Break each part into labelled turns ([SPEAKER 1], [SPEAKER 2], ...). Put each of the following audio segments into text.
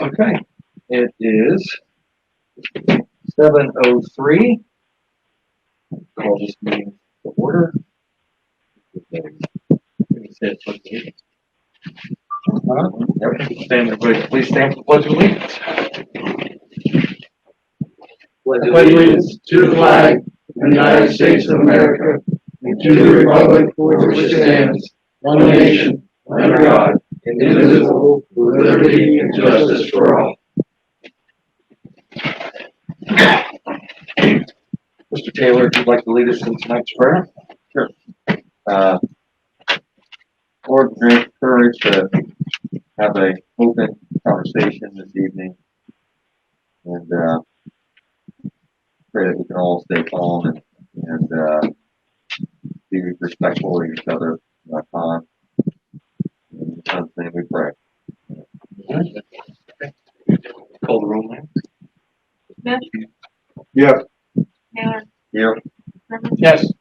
[SPEAKER 1] Okay, it is seven oh three. Call this meeting to order. Stand, everybody, please stand for the pledge of allegiance.
[SPEAKER 2] pledge allegiance to the flag of the United States of America and to the republic for which it stands, one nation, under God, indivisible, with liberty and justice for all.
[SPEAKER 1] Mr. Taylor, if you'd like to lead us in tonight's prayer? Sure. Uh, Lord, grant courage to have a open conversation this evening. And, uh, pray that we can all stay calm and, and, uh, be respectful of each other, uh, time. In the son's name we pray. Call the roll, man.
[SPEAKER 3] Smith,
[SPEAKER 2] Yes.
[SPEAKER 3] Taylor,
[SPEAKER 1] Here.
[SPEAKER 3] Herman,
[SPEAKER 2] Yes.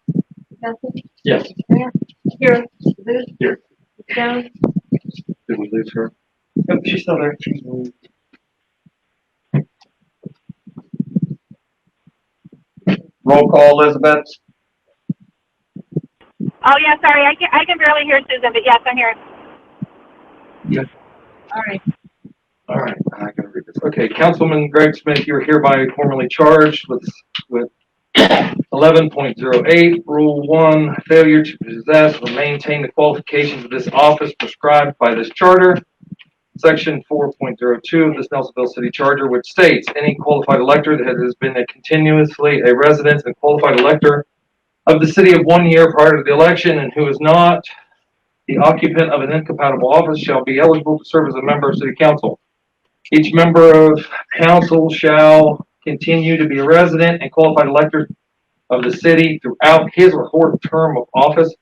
[SPEAKER 3] Duffy,
[SPEAKER 2] Yes.
[SPEAKER 3] Grant, here, Booth.
[SPEAKER 2] Here.
[SPEAKER 3] Jones,
[SPEAKER 1] Did we lose her?
[SPEAKER 2] She's still there.
[SPEAKER 1] Roll call, Elizabeth.
[SPEAKER 4] Oh, yeah, sorry, I can, I can barely hear Susan, but yes, I'm here.
[SPEAKER 3] all right,
[SPEAKER 1] All right, I gotta read this. Okay, Councilman Greg Smith, you are hereby formally charged with, with eleven point zero eight, Rule One, failure to possess or maintain the qualifications of this office prescribed by this charter. Section four point zero two of this Nelsonville City Charter, which states, any qualified elector that has been a continuously a resident and qualified elector of the city of one year prior to the election and who is not the occupant of an incompatible office shall be eligible to serve as a member of city council. Each member of council shall continue to be a resident and qualified elector of the city throughout his or her term of office,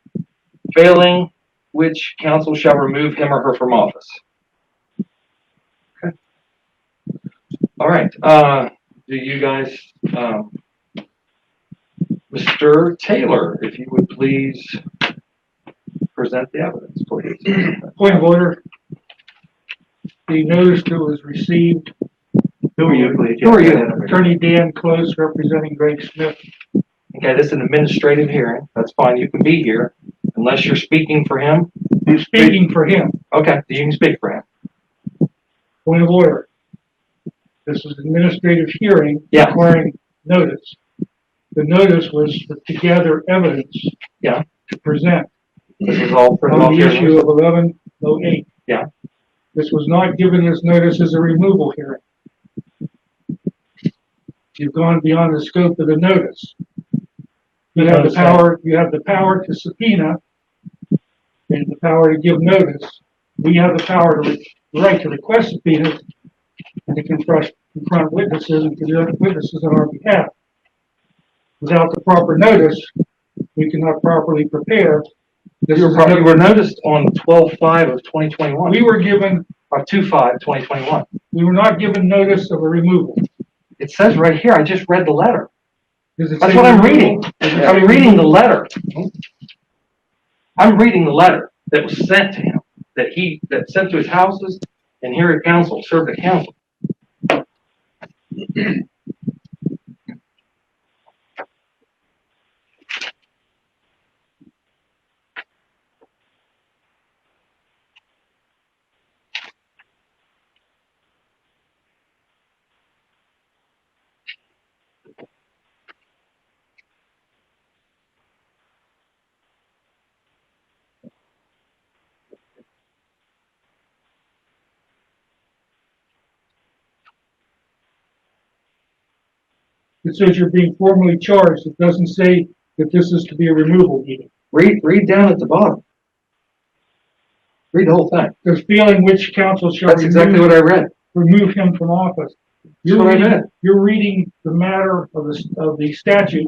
[SPEAKER 1] failing which council shall remove him or her from office. Okay. All right, uh, do you guys, um, Mr. Taylor, if you would please present the evidence, please.
[SPEAKER 5] Point of order. The notice that was received.
[SPEAKER 2] Who are you, please?
[SPEAKER 1] Who are you?
[SPEAKER 5] Attorney Dan Close representing Greg Smith.
[SPEAKER 1] Okay, this is an administrative hearing. That's fine. You can be here unless you're speaking for him.
[SPEAKER 5] I'm Speaking for him,
[SPEAKER 1] Okay, you can speak for him.
[SPEAKER 5] point of order. This is administrative hearing
[SPEAKER 1] Yeah.
[SPEAKER 5] requiring notice. The notice was to gather evidence.
[SPEAKER 1] Yeah.
[SPEAKER 5] To present
[SPEAKER 1] This is all for all
[SPEAKER 5] on the issue
[SPEAKER 1] hearings.
[SPEAKER 5] of eleven oh eight.
[SPEAKER 1] Yeah.
[SPEAKER 5] This was not given as notice as a removal hearing. You've gone beyond the scope of the notice. You have the
[SPEAKER 1] uh,
[SPEAKER 2] Notice that.
[SPEAKER 5] power, you have the power to subpoena and the power to give notice. We have the power to, re- the right to request subpoenas and to confront, confront witnesses and to do witnesses on our behalf. Without the proper notice, we cannot properly prepare. This
[SPEAKER 1] You were
[SPEAKER 5] is
[SPEAKER 1] pro-
[SPEAKER 5] another-
[SPEAKER 1] you were noticed on twelve five of twenty twenty one,
[SPEAKER 5] we were given,
[SPEAKER 1] or two five twenty twenty one.
[SPEAKER 5] we were not given notice of a removal.
[SPEAKER 1] It says right here, I just read the letter.
[SPEAKER 5] Does it
[SPEAKER 1] That's
[SPEAKER 5] say
[SPEAKER 1] what I'm
[SPEAKER 5] removal?
[SPEAKER 1] reading. I'm reading the letter. I'm reading the letter that was sent to him, that he, that sent to his houses and here at council, served at council.
[SPEAKER 5] It says you're being formally charged. It doesn't say that this is to be a removal meeting.
[SPEAKER 1] Read, read down at the bottom. Read the whole thing.
[SPEAKER 5] There's feeling which council shall
[SPEAKER 1] That's exactly
[SPEAKER 5] remove,
[SPEAKER 1] what I read.
[SPEAKER 5] remove him from office.
[SPEAKER 1] That's
[SPEAKER 5] You're
[SPEAKER 1] what I
[SPEAKER 5] reading,
[SPEAKER 1] meant.
[SPEAKER 5] you're reading the matter of the, of the statute